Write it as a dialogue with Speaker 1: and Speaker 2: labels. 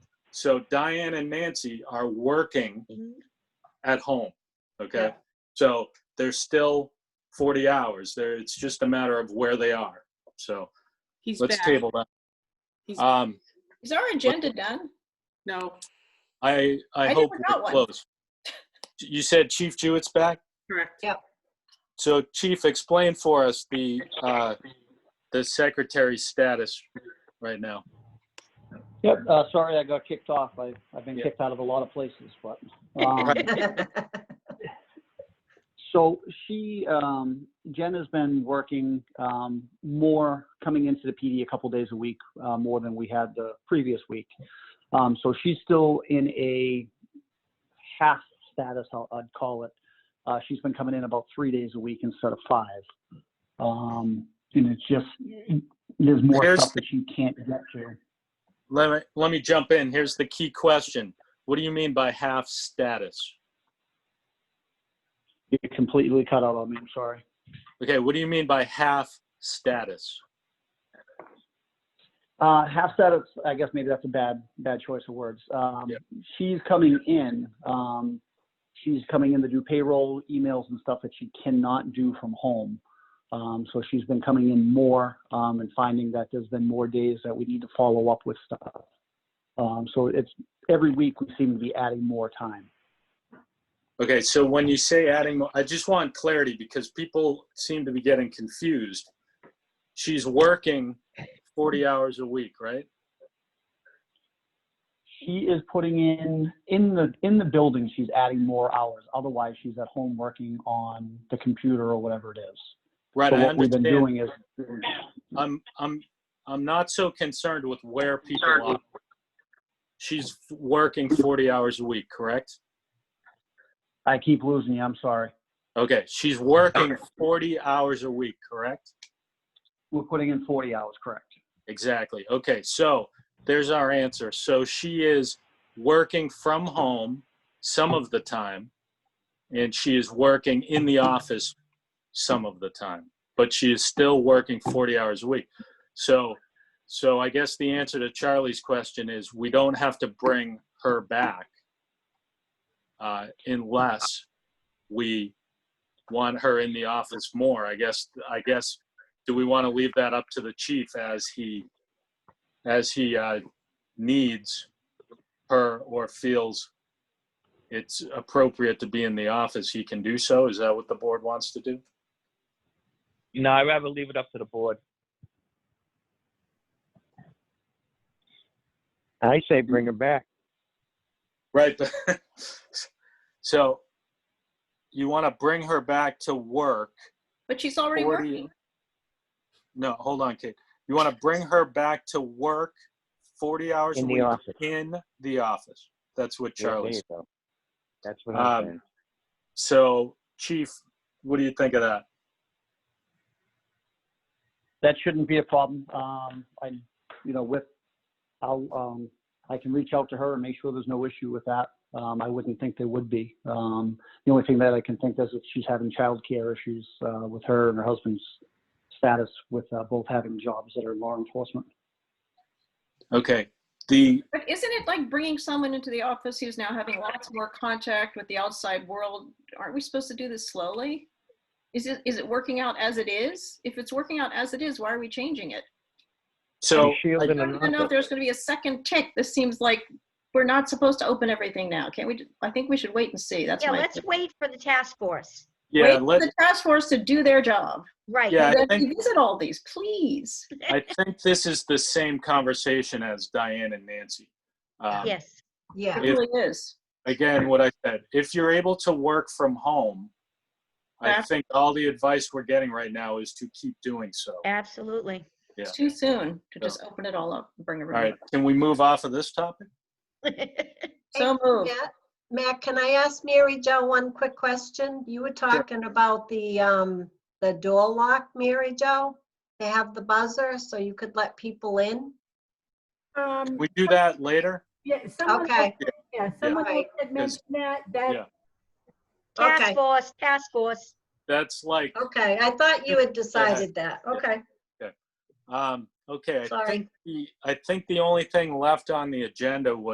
Speaker 1: So Diane and Nancy are working at home. Okay.
Speaker 2: Mm-hmm. Yeah.
Speaker 1: So they're still 40 hours. There, it's just a matter of where they are. So
Speaker 2: He's
Speaker 1: let's
Speaker 2: back.
Speaker 1: table that.
Speaker 2: He's-
Speaker 1: Um,
Speaker 3: Is our agenda done?
Speaker 2: No,
Speaker 1: I I,
Speaker 3: I
Speaker 1: hope
Speaker 3: never got
Speaker 1: we're
Speaker 3: one.
Speaker 1: close. You said Chief Jewett's back.
Speaker 2: correct.
Speaker 1: So Chief, explain for us the uh, the secretary status right now.
Speaker 4: Yep, uh, sorry I got kicked off. I, I've been
Speaker 1: Yeah.
Speaker 4: kicked out of a lot of places, but, um, so she, um, Jen has been working, um, more coming into the PD a couple days a week, uh, more than we had the previous week. Um, so she's still in a half status, I'll, I'd call it. Uh, she's been coming in about three days a week instead of five. Um, and it's just, there's more
Speaker 1: Here's
Speaker 4: stuff
Speaker 1: the-
Speaker 4: that she can't get to.
Speaker 1: Let me let me jump in. Here's the key question. What do you mean by half status?
Speaker 4: You completely cut out on me, I'm sorry.
Speaker 1: Okay, what do you mean by half status?
Speaker 4: Uh, half status, I guess maybe that's a bad, bad choice of words. Um,
Speaker 1: Yeah.
Speaker 4: She's coming in, um, she's coming in to do payroll, emails and stuff that she cannot do from home. Um, so she's been coming in more, um, and finding that there's been more days that we need to follow up with stuff. Um, so it's, every week we seem to be adding more time.
Speaker 1: Okay, so when you say adding, mo- I just want clarity because people seem to be getting confused. She's working 40 hours a week, right?
Speaker 4: She is putting in, in the, in the building, she's adding more hours. Otherwise, she's at home working on the computer or whatever it is.
Speaker 1: Right,
Speaker 4: So
Speaker 1: I
Speaker 4: what we've been
Speaker 1: understand.
Speaker 4: doing is,
Speaker 1: I'm, I'm, I'm not so concerned with where people are. She's f- working 40 hours a week, correct?
Speaker 4: I keep losing you, I'm sorry.
Speaker 1: Okay, she's working 40 hours a week, correct?
Speaker 4: We're putting in 40 hours, correct?
Speaker 1: Exactly. Okay, so there's our answer. So she is working from home some of the time, and she is working in the office some of the time, but she is still working 40 hours a week. So, so I guess the answer to Charlie's question is we don't have to bring her back uh, unless we want her in the office more. I guess. I guess do we want to leave that up to the chief as he as he uh, needs her or feels it's appropriate to be in the office he can do so is that what the board wants to do
Speaker 5: No, I'd rather leave it up to the board.
Speaker 6: I say bring her back.
Speaker 1: right but so you want to bring her back to work
Speaker 3: But she's already
Speaker 1: 40
Speaker 3: working.
Speaker 1: no hold on kate you want to bring her back to work 40 hours
Speaker 6: In
Speaker 1: a
Speaker 6: the
Speaker 1: week
Speaker 6: office.
Speaker 1: in the office that's what
Speaker 6: Yeah, there
Speaker 1: charlie's
Speaker 6: you go. That's what I'm
Speaker 1: Um,
Speaker 6: saying.
Speaker 1: so chief what do you think of that
Speaker 4: That shouldn't be a problem. Um, I, you know, with, I'll, um, I can reach out to her and make sure there's no issue with that. Um, I wouldn't think there would be. Um, the only thing that I can think is if she's having childcare issues, uh, with her and her husband's status with, uh, both having jobs that are law enforcement.
Speaker 1: Okay. The
Speaker 3: But isn't it like bringing someone into the office who's now having lots more contact with the outside world? Aren't we supposed to do this slowly? Is it, is it working out as it is? If it's working out as it is, why are we changing it?
Speaker 1: so
Speaker 6: Be shielded
Speaker 3: I don't
Speaker 6: and
Speaker 3: even know if
Speaker 6: not-
Speaker 3: there's going to be a second tick. This seems like we're not supposed to open everything now. Can't we? ju- I think we should wait and see. That's
Speaker 7: Yeah,
Speaker 3: my.
Speaker 7: let's wait for the task force.
Speaker 1: yeah,
Speaker 3: wait for
Speaker 1: let
Speaker 3: the task force to do their job.
Speaker 7: Right.
Speaker 1: Yeah, I
Speaker 3: Then
Speaker 1: think-
Speaker 3: revisit all these, please.
Speaker 1: I think this is the same conversation as Diane and Nancy. Um,
Speaker 7: Yes.
Speaker 2: Yeah.
Speaker 3: It really is.
Speaker 1: Again, what I said, if you're able to work from home, I
Speaker 3: That's-
Speaker 1: think all the advice we're getting right now is to keep doing so. All
Speaker 7: Absolutely.
Speaker 3: It's too soon to just open it all up and bring
Speaker 1: right,
Speaker 3: everyone.
Speaker 1: can we move off of this topic?
Speaker 3: So moved.
Speaker 8: Matt- Matt, can I ask Mary Jo one quick question? You were talking about the, um, the door lock, Mary Jo? They have the buzzer so you could let people in?
Speaker 9: Um,
Speaker 1: Can we do that later?
Speaker 9: yeah, someone,
Speaker 8: Okay.
Speaker 9: yeah, someone
Speaker 8: Right.
Speaker 9: had mentioned that,
Speaker 1: Yeah.
Speaker 9: that,
Speaker 7: Task
Speaker 8: Okay.
Speaker 7: force, task force.
Speaker 1: That's like,
Speaker 8: Okay, I thought you had decided that. Okay,
Speaker 1: um, okay, I
Speaker 8: sorry.
Speaker 1: think, the- I think the only thing left on the agenda was